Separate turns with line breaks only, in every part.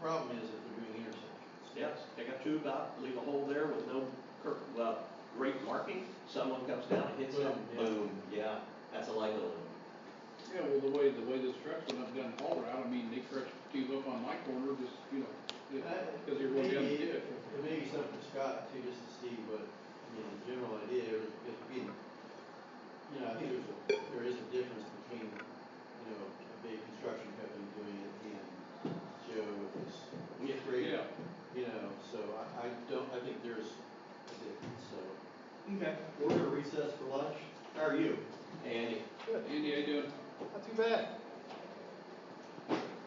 problem is if they're doing intersections.
Yes, take out two about, leave a hole there with no cur, uh, great marking, someone comes down and hits
Boom,
it,
yeah.
boom, yeah, that's a liability.
Yeah, well, the way, the way this truck went up down Hall Road, I mean, they crushed tees up on my corner, just, you know, because you're going down
Uh,
the
Maybe-
ditch.
It may be something for Scott too, just to see what, I mean, the general idea, is because we, you know, I think there's, a there is a difference between, you know, a big construction company doing it and Joe with his
Yeah,
creative
Yeah,
you know, so I, I don't, I think there's a difference, so.
Okay.
We're gonna recess for lunch. How are you?
And
Andy, I do,
Not too bad.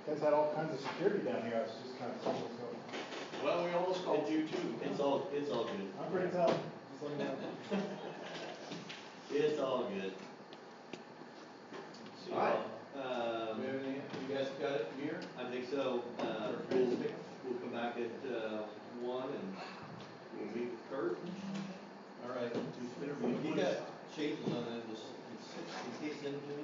Guys had all kinds of security down here, I was just kind of thinking, so,
Well, we almost called you too.
It's all, it's all good.
I'm pretty tough, just letting you know.
It's all good.
So,
All right.
um,
Um, you guys got it from here?
I think so, uh, we'll, we'll come back at, uh, one and we'll meet with Kurt.
All right. If you got changes on that, just, can Kate send it to me?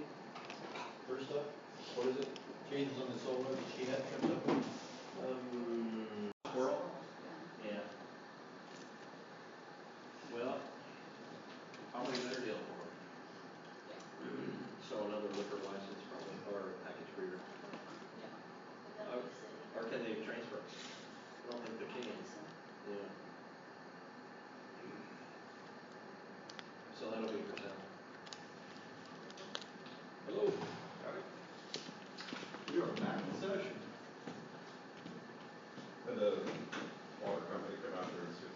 First up, what is it? Changes on the solar that she had turned up?
Um, Coral? Yeah. Well, probably better deal for him. So another liquor license probably, or package reader, or can they transfer? I don't think they can. Yeah. So that'll be for sale.
hello.
We are back in session.
And the water company come out there and see if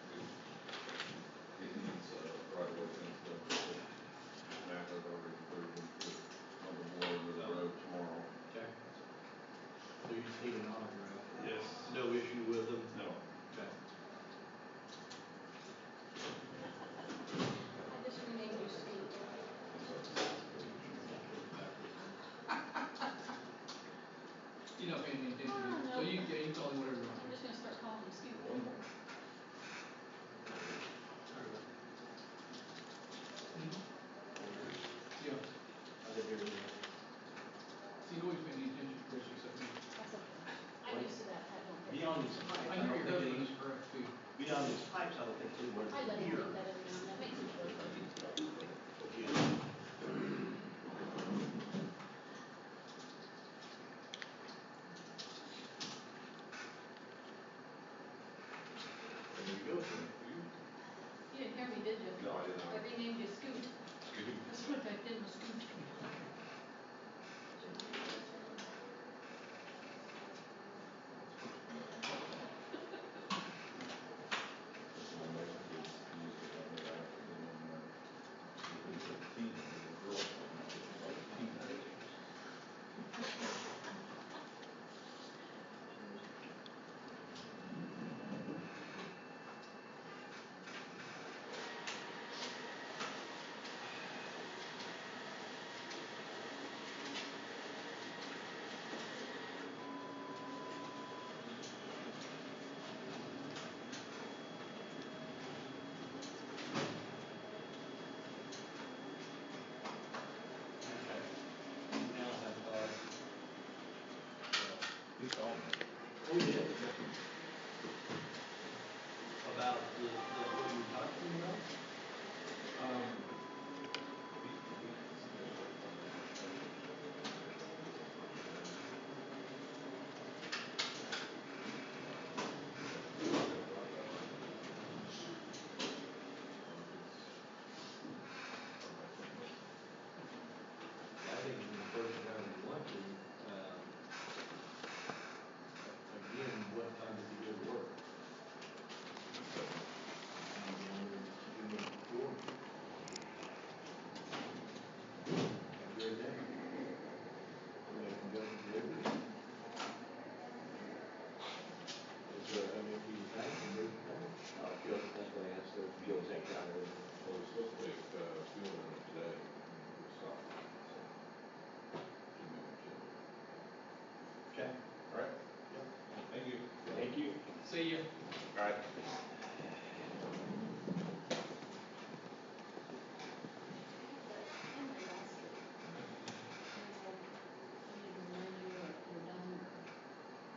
they can, uh, right away and stuff. And after they're already approved, and put on the board with the road tomorrow.
Okay. So you just need an autograph.
Yes.
No issue with them?
No.
Okay.
You know, paying any attention,
Ah,
so
no.
you, yeah, you call him whatever you want.
I'm just gonna start calling him Scoop.
Mm-hmm. Yeah,
I did everything.
so you always pay any attention, Chris, or something.
That's okay. I'm used to that, I don't.
Beyond these pipes,
I
I don't
hear your
think
husband
any,
is correct too.
beyond these pipes, I don't think anywhere
I let him
here.
do that every now and then, makes me feel good.
Yeah.
There you go. You-
You didn't hear me, did you?
No, I did not.
I renamed you Scoot, that's what I did, was Scoot.
That's my next kid's use it on the back, and then, uh, if it's a teen, it's a girl, I'm not sure, like, teen. He called me.
Oh, yeah. About the, the, what you were talking about?
Um,
I think when the first round of luncheon, um, again, what time did you go to work?
Have a great day. Everybody can go and do it. Is, uh, I mean, if you have to, you can.
Uh, Phil, that's what I asked, if Phil take out or.
Well, it's supposed to take, uh, fuel in it today, and it was soft, so. Didn't know what to do.
Okay.
All right? Thank you.
Thank you.
See ya.
All right.